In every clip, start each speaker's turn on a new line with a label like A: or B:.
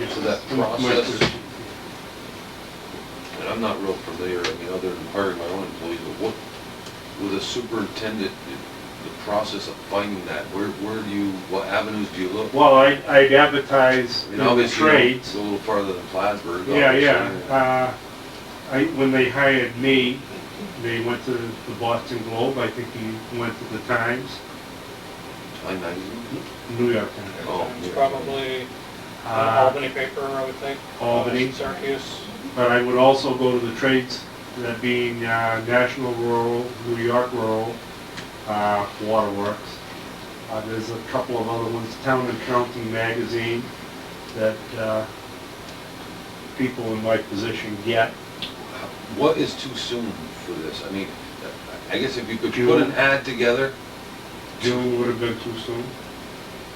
A: into that
B: Mike,
A: process.
B: there's-
A: And I'm not real familiar, I mean, other than hiring my own employees, but what, with a superintendent, the- the process of finding that, where, where do you, what avenues do you look?
B: Well, I, I advertise in
A: And
B: the
A: obviously, you don't
B: trades.
A: go a little farther than Plattsburgh.
B: Yeah,
A: obviously.
B: yeah. Uh, I, when they hired me, they went to the Boston Globe, I think he went to the Times,
A: I know.
B: New York Times,
A: Oh,
C: It's
A: yeah.
C: probably an
B: uh,
C: Albany paper, I would think. Uh,
B: Albany.
C: Syracuse.
B: But I would also go to the trades, that being uh, National Rural, New York Rural, uh, Waterworks. Uh, There's a couple of other ones, Town and County Magazine, that uh, people in my position get.
A: What is too soon for this? I mean, I guess if you could put an ad together,
B: June would have been too soon.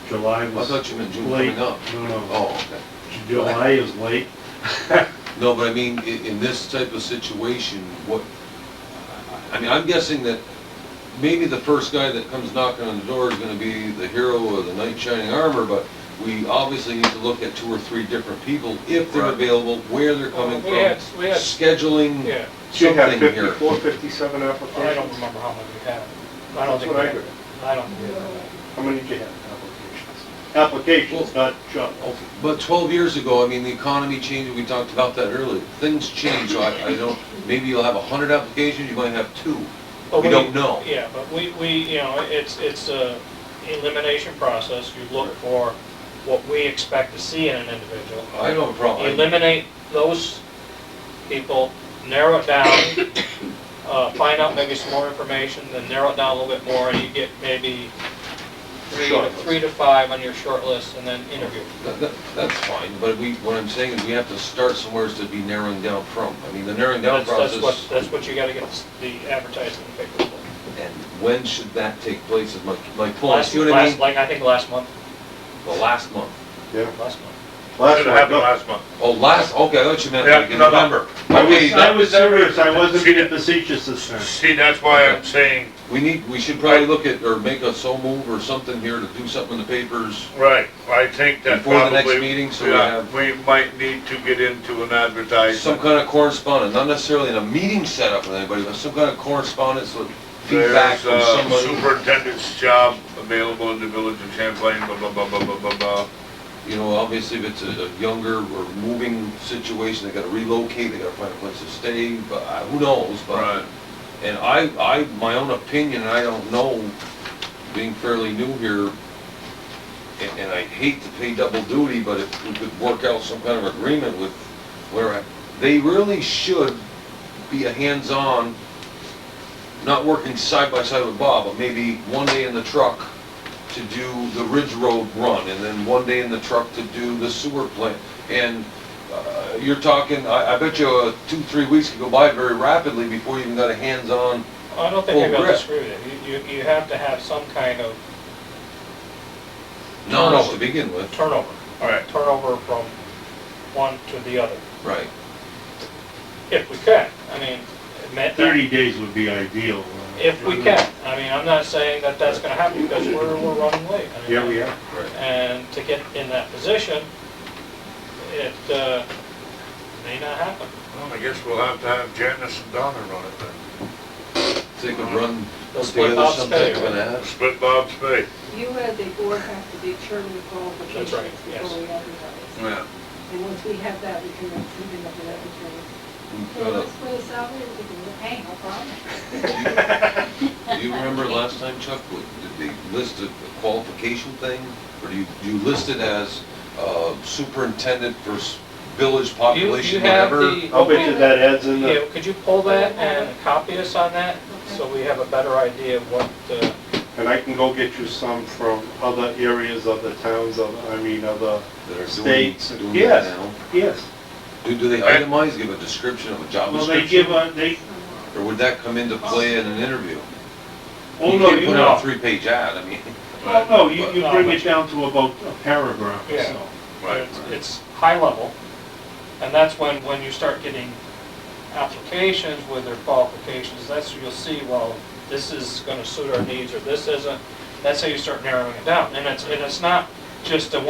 B: July
A: I
B: was
A: thought you meant June
B: late.
A: coming up.
B: No, no,
A: Oh, okay.
B: July is late.
A: No, but I mean, in, in this type of situation, what, I mean, I'm guessing that maybe the first guy that comes knocking on the door is gonna be the hero or the knight in shining armor, but we obviously need to look at two or three different people, if they're
D: Right.
A: available, where they're coming
C: Well, we had-
A: from,
C: we had-
A: scheduling
C: Yeah,
B: Should have
A: something here.
B: 54, 57 applications.
C: I don't remember how many we had. I don't
B: That's
C: think
B: what
C: we
B: I
C: had-
B: heard.
C: I don't think we had.
B: How many did you have, applications? Applications, not jobs.
A: But 12 years ago, I mean, the economy changed, we talked about that earlier, things change, so I, I don't, maybe you'll have 100 applications, you might have two.
C: But
A: We don't know.
C: Yeah, but we, we, you know, it's, it's a elimination process. You look for what we expect to see in an individual.
A: I don't have a problem.
C: Eliminate those people, narrow it down, uh, find out maybe some more information, then narrow it down a little bit more, and you get maybe three to,
A: Short list.
C: three to five on your short list, and then interview.
A: That- that- That's fine, but we, what I'm saying is we have to start somewhere to be narrowing down from. I mean, the narrowing down
C: That's, that's what,
A: process,
C: that's what you gotta get the advertising paper for.
A: and when should that take place is my, my point,
C: Last,
A: see what I
C: last,
A: mean?
C: like, I think last month,
A: The last month.
B: Yeah.
C: last month.
B: Last
E: Should have
B: one,
E: happened
B: no.
E: last month.
A: Oh, last, okay, I thought you meant
E: Yeah,
A: like in November.
E: November.
B: I
A: Okay,
B: was, I was
E: that-
B: serious, I wasn't being facetious this time.
E: See, that's why I'm saying,
A: we need, we should probably look at, or make a so move or something here to do something in the papers.
E: right, I think that
A: Before the
E: probably.
A: next meeting, so we
E: yeah,
A: have-
E: We might need to get into an
A: Some
E: advertisement.
A: kind of correspondence, not necessarily in a meeting set up with anybody, but some kind of correspondence with feedback
E: There's uh,
A: from
E: a
A: somebody.
E: superintendent's job available in the village of Champlain, blah, blah, blah, blah, blah, blah, blah.
A: You know, obviously if it's a a younger or moving situation, they gotta relocate, they gotta find a place to stay, but I- who knows, but.
E: Right.
A: And I, I, my own opinion, and I don't know, being fairly new here, and, and I hate to pay double duty, but if we could work out some kind of agreement with where I, they really should be a hands-on, not working side by side with Bob, but maybe one day in the truck to do the Ridge Road run, and then one day in the truck to do the sewer plant. And uh, you're talking, I, I bet you uh, two, three weeks could go by very rapidly before you even got a hands-on.
C: I don't think I
A: Full
C: gotta
A: grip.
C: disagree with you. You, you, you have to have some kind of
A: No, no, to begin with,
C: turnover.
E: Right.
C: Turnover from one to the other,
A: right.
C: if we can. I mean, it may-
B: Thirty days would be ideal. uh,
C: If we can. I mean, I'm not saying that that's gonna happen because we're, we're running late. I mean,
B: Yeah, we are.
A: Right.
C: And to get in that position, it, uh, may not happen.
E: Well, I guess we'll have to have Janice and Donna run it then.
A: They could run
C: They'll Uh-huh. split
A: together
C: Bob's
A: some type
C: pay.
A: of an ad.
E: Split Bob's pay.
F: You as a board have to determine the qualifications
C: That's right, yes.
F: before we advertise.
E: Yeah.
F: And once we have that, we can then see them up and advertise.
A: We've
F: So
A: got
F: let's put a salary, we can, hey, no problem.
A: a- Do you remember last time Chuck, what- did they list a qualification thing? Or do you, you list it as uh, superintendent for s- village
C: You, you
A: population,
C: have
A: whatever? Oh,
C: the.
B: I'll bet you that adds in
C: Yeah,
B: the,
C: could you pull that and copy us on that, so we have a better idea of what, uh,
B: and I can go get you some from other areas, other towns, other, I mean, other
A: that are doing-
B: states.
A: doing it
B: Yes,
A: now?
B: yes.
A: Do, do they itemize, give a description of a job
B: Well, they give
A: description?
B: a, they,
A: Or would that come into play in an interview?
B: oh, no,
A: You
B: you
A: can put out a
B: know,
A: three-page ad, I mean,
B: oh, no, you, you bring it down to about a paragraph or
C: Yeah.
B: so.
E: Right.
C: it's- it's high level. And that's when, when you start getting applications with their qualifications, that's where you'll see, well, this is gonna suit our needs, or this isn't. That's how you start narrowing it down, and it's, and it's not just a